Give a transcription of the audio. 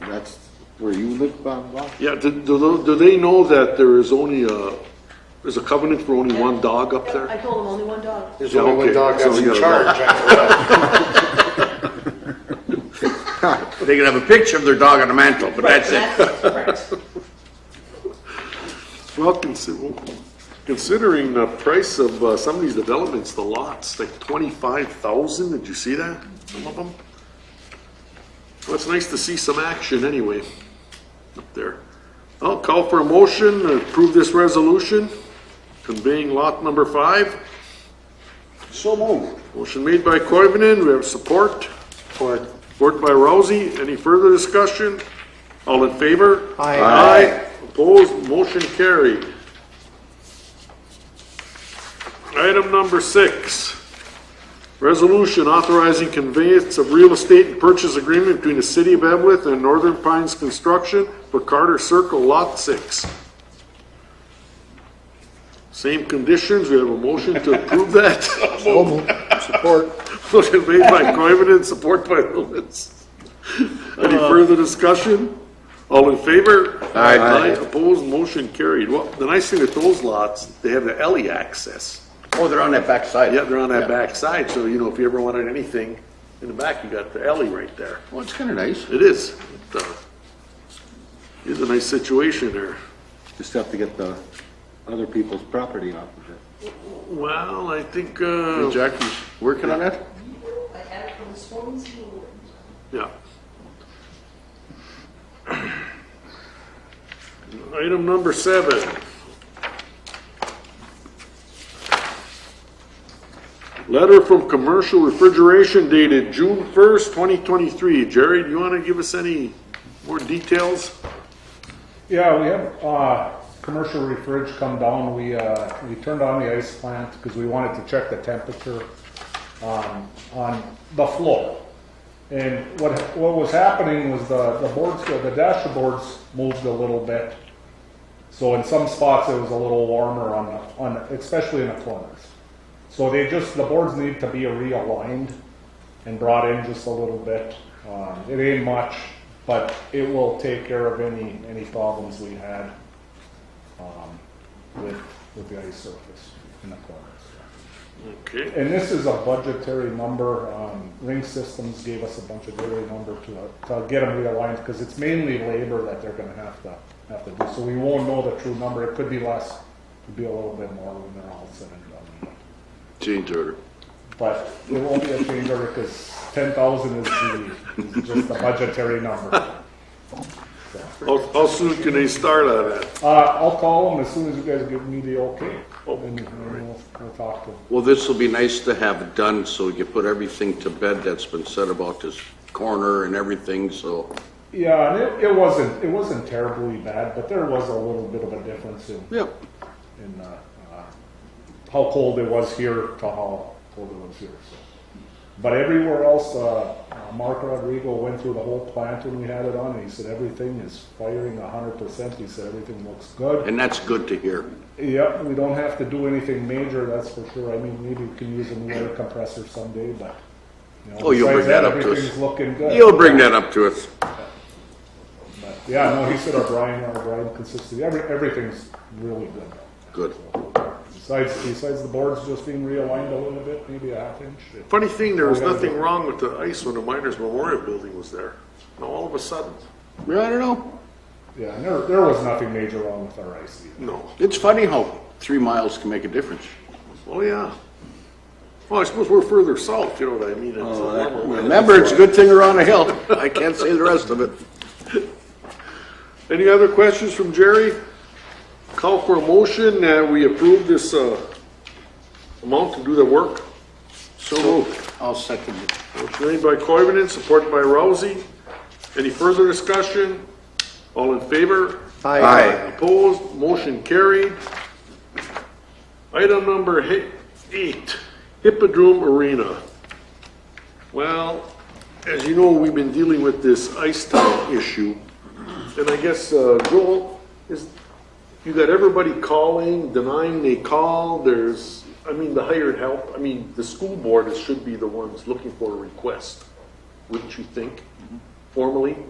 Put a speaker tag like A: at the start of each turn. A: That's where you live, Bob? Bob?
B: Yeah, do, do, do they know that there is only a, there's a covenant for only one dog up
C: Yep, I
B: there?
C: told him only one dog.
D: There's
B: Yeah,
D: only one
B: okay,
D: dog
B: so
D: that's
B: you
D: in
B: gotta
D: charge. after that. They can have a picture of their dog on a mantle, but that's it.
C: That's it.
B: Well, consider, considering the price of uh, some of these developments, the lots, like twenty-five thousand, did you see that? Some of them? Well, it's nice to see some action anyway, up there. I'll call for a motion to approve this resolution, conveying lot number five.
D: So moved.
B: Motion made by Koivunen, we have support.
D: Support.
B: Support by Rousey. Any further discussion? All in favor?
D: Aye.
B: Aye. Opposed, motion carried. Item number six. Resolution authorizing conveyance of real estate and purchase agreement between the City of Evlith and Northern Pines Construction for Carter Circle Lot Six. Same conditions. We have a motion to approve that.
D: Support.
B: Motion made by Coivinon, support by Lumens. Any further discussion? All in favor?
A: Aye.
B: Opposed, motion carried. Well, the nice thing with those lots, they have the alley access.
E: Oh, they're on that back side.
B: Yeah, they're on that back side, so you know, if you ever wanted anything in the back, you got the alley right there.
E: Well, it's kind of nice.
B: It is. It, uh, Is a nice situation there.
A: Just have to get the other people's property off of it.
B: Well, I think, uh,
E: Jackie's working on that?
C: I had it from the Swansea.
B: Yeah. Item number seven. Letter from Commercial Refrigeration dated June 1st, 2023. Jerry, do you want to give us any more details?
F: Yeah, we have uh, commercial refrigerators come down. We uh, we turned on the ice plant because we wanted to check the temperature um, on the floor. And what what was happening was the the boards the dashboards moved a little bit. So in some spots it was a little warmer on the, on the, especially in the corners. So they just the boards need to be realigned and brought in just a little bit. Um, it ain't much, but it will take care of any any problems we had um, with with the ice surface in the corners.
B: Okay,
F: And this is a budgetary number. Um, Ring Systems gave us a bunch of budgetary number to to get them realigned because it's mainly labor that they're going to have to have to do. So we won't know the true number. It could be less, it could be a little bit more when they're all said and done.
E: Change order.
F: But it won't be a change order because ten thousand is the, is just the budgetary number.
B: how, how soon can they start on that?
F: Uh, I'll call them as soon as you guys give me the okay.
B: Oh,
F: And then we'll, we'll talk to them.
G: Well, this will be nice to have done, so you put everything to bed that's been said about this corner and everything, so,
F: Yeah, and it, it wasn't, it wasn't terribly bad, but there was a little bit of a difference in,
G: yeah.
F: in, uh, uh, how cold it was here to how cold it was here, so. But everywhere else, uh, uh, Mark Rodrigo went through the whole plant when we had it on and he said everything is firing a hundred percent. He said everything looks good.
G: And that's good to hear.
F: Yep, we don't have to do anything major, that's for sure. I mean, maybe we can use a new air compressor someday, but. you know,
G: Oh, you'll bring
F: besides
G: that up to us.
F: Everything's looking good.
G: You'll bring that up to us.
F: But, Yeah, no, he said our brine, our brine consistency, every, everything's really good.
G: Good.
F: Besides, besides the boards just being realigned a little bit, maybe a half inch. it-
B: Funny thing, there was nothing wrong with the ice when the Miners Memorial Building was there. Now, all of a sudden,
G: Yeah, I don't know.
F: Yeah, and there, there was nothing major wrong with our ice either.
B: no.
G: It's funny how three miles can make a difference.
B: Oh, yeah. Well, I suppose we're further south, you know what I mean? It's a warmer weather.
G: Remember, it's a good thing around a hill. I can't say the rest of it.
B: Any other questions from Jerry? Call for a motion that we approve this, uh, amount to do the work. So moved.
E: I'll second it.
B: Motion made by Coivinon, supported by Rousey. Any further discussion? All in favor?
E: Aye.
B: Opposed, motion carried. Item number hi- eight, Hippodrome Arena. Well, as you know, we've been dealing with this ice time issue. And I guess, uh, Joel, is, you got everybody calling, denying they call, there's, I mean, the hired help, I mean, the school board should be the ones looking for a request, wouldn't you think, formally?